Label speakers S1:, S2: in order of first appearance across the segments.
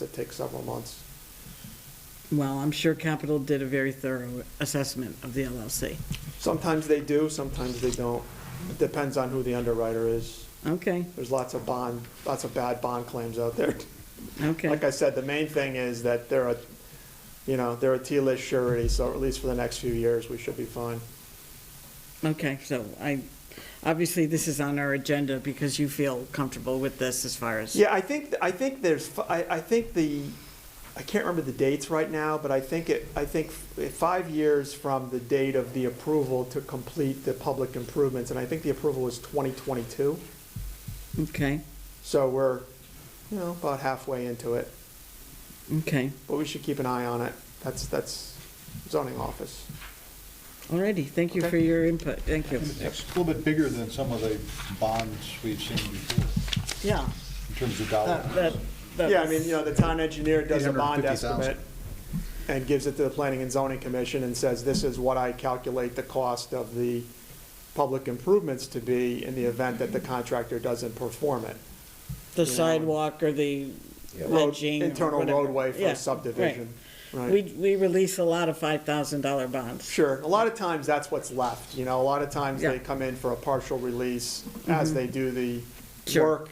S1: that takes several months.
S2: Well, I'm sure Capital did a very thorough assessment of the LLC.
S1: Sometimes they do, sometimes they don't. It Depends on who the underwriter is.
S2: Okay,
S1: There's lots of bond, lots of bad bond claims out there. Like
S2: okay,
S1: I said, the main thing is that they're a, you know, they're a T-list surety, so at least for the next few years, we should be fine.
S2: okay, so I, obviously, this is on our agenda because you feel comfortable with this as far as.
S1: Yeah, I think, I think there's, I, I think the, I can't remember the dates right now, but I think it, I think f- five years from the date of the approval to complete the public improvements, and I think the approval was 2022.
S2: Okay,
S1: So we're, you know, about halfway into it,
S2: okay,
S1: but we should keep an eye on it. That's, that's zoning office.
S2: alrighty, thank you for
S1: Okay.
S2: your input, thank you.
S3: It's a little bit bigger than some of the bonds we've seen before,
S2: Yeah,
S3: in terms of
S2: that,
S3: dollars.
S2: that. that
S1: Yeah, I
S2: was-
S1: mean, you know, the town engineer does a bond
S3: 850,000.
S1: estimate and gives it to the planning and zoning commission and says, this is what I calculate the cost of the public improvements to be in the event that the contractor doesn't perform it.
S2: The
S1: you know,
S2: sidewalk or the
S1: Road-
S2: ledging. or
S1: Internal
S2: whatever.
S1: roadway for
S2: Yeah,
S1: a
S2: right.
S1: subdivision,
S2: We,
S1: right?
S2: we release a lot of five thousand dollar bonds.
S1: Sure, a lot of times that's what's left, you know, a lot of times
S2: Yeah. Mm-hmm.
S1: they come in for a partial release as they do the
S2: Sure.
S1: work.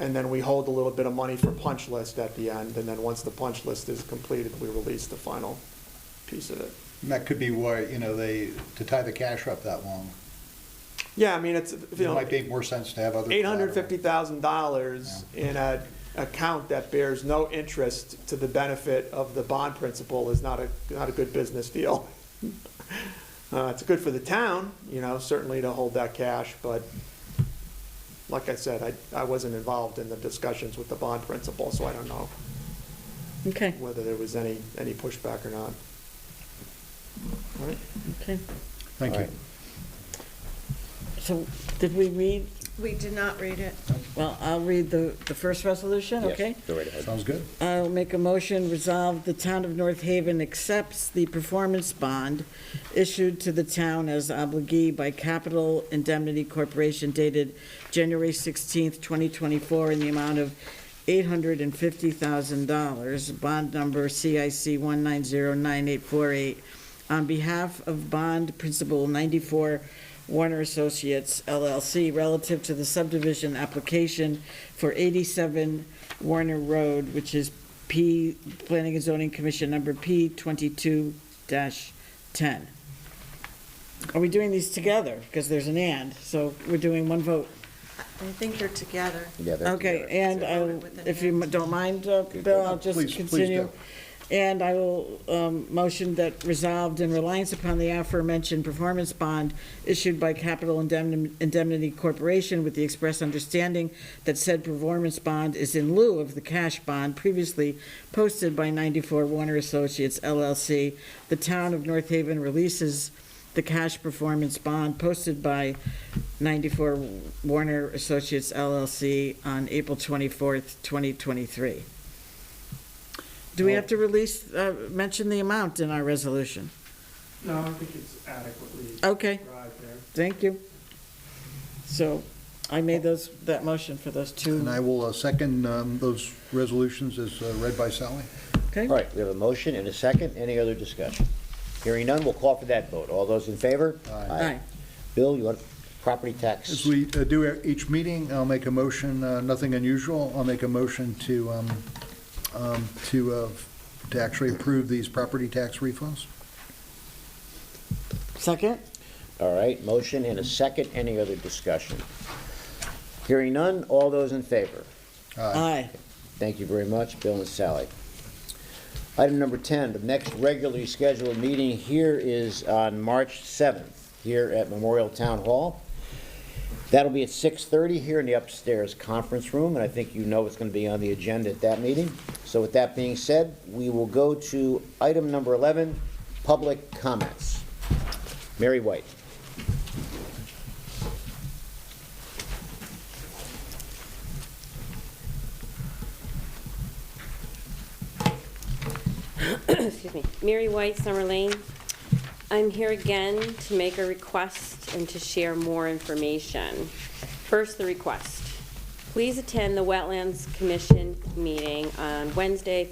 S1: And then we hold a little bit of money for punch list at the end, and then once the punch list is completed, we release the final piece of it.
S3: And that could be why, you know, they, to tie the cash up that long,
S1: Yeah, I mean, it's,
S3: it
S1: you know,
S3: might make more sense to have other.
S1: eight
S3: collateral.
S1: hundred fifty thousand dollars in a account that bears no interest to the benefit of the bond principal is not a, not a good business deal. Uh, it's good for the town, you know, certainly to hold that cash, but like I said, I, I wasn't involved in the discussions with the bond principal, so I don't know
S2: Okay,
S1: whether there was any, any pushback or not. All right.
S2: okay.
S3: Thank you.
S2: So, did we read,
S4: We did not read it.
S2: well, I'll read the, the first resolution,
S5: Yes,
S2: okay?
S5: Go right ahead.
S3: Sounds good.
S2: I'll make a motion, resolve the town of North Haven accepts the performance bond issued to the town as obligee by Capital Indemnity Corporation dated January 16th, 2024, in the amount of $850,000, bond number CIC 1909848, on behalf of Bond Principal 94 Warner Associates LLC relative to the subdivision application for 87 Warner Road, which is P, Planning and Zoning Commission number P 22-10. Are we doing these together? Because there's an and, so we're doing one vote.
S4: I think they're together.
S5: Yeah, they're
S2: Okay, and
S5: together.
S2: I'll- if you don't mind, uh, Bill, I'll just
S3: Please, please
S2: continue.
S3: do.
S2: And I will um, motion that resolved in reliance upon the aforementioned performance bond issued by Capital Indemni- Indemnity Corporation with the express understanding that said performance bond is in lieu of the cash bond previously posted by 94 Warner Associates LLC. The town of North Haven releases the cash performance bond posted by 94 Warner Associates LLC on April 24th, 2023. Do we have to release, uh, mention the amount in our resolution?
S1: No, I think it's adequately
S2: Okay,
S1: described there.
S2: thank you. So I made those, that motion for those two.
S3: And I will uh, second um, those resolutions as uh, read by Sally.
S2: Okay,
S5: All right, we have a motion and a second. Any other discussion? Hearing none, we'll call for that vote. All those in favor?
S2: aye,
S5: Bill, you want property tax?
S3: As we uh, do at each meeting, I'll make a motion, uh, nothing unusual, I'll make a motion to, um, um, to, uh, to actually approve these property tax refunds.
S2: second?
S5: All right, motion and a second. Any other discussion? Hearing none, all those in favor?
S2: Aye.
S5: Thank you very much, Bill and Sally. Item number 10, the next regularly scheduled meeting here is on March 7th, here at Memorial Town Hall. That'll be at 6:30 here in the upstairs conference room, and I think you know it's going to be on the agenda at that meeting. So with that being said, we will go to item number 11, public comments. Mary White.
S6: excuse me, Mary White, Summer Lane. I'm here again to make a request and to share more information. First, the request. Please attend the Wetlands Commission meeting on Wednesday,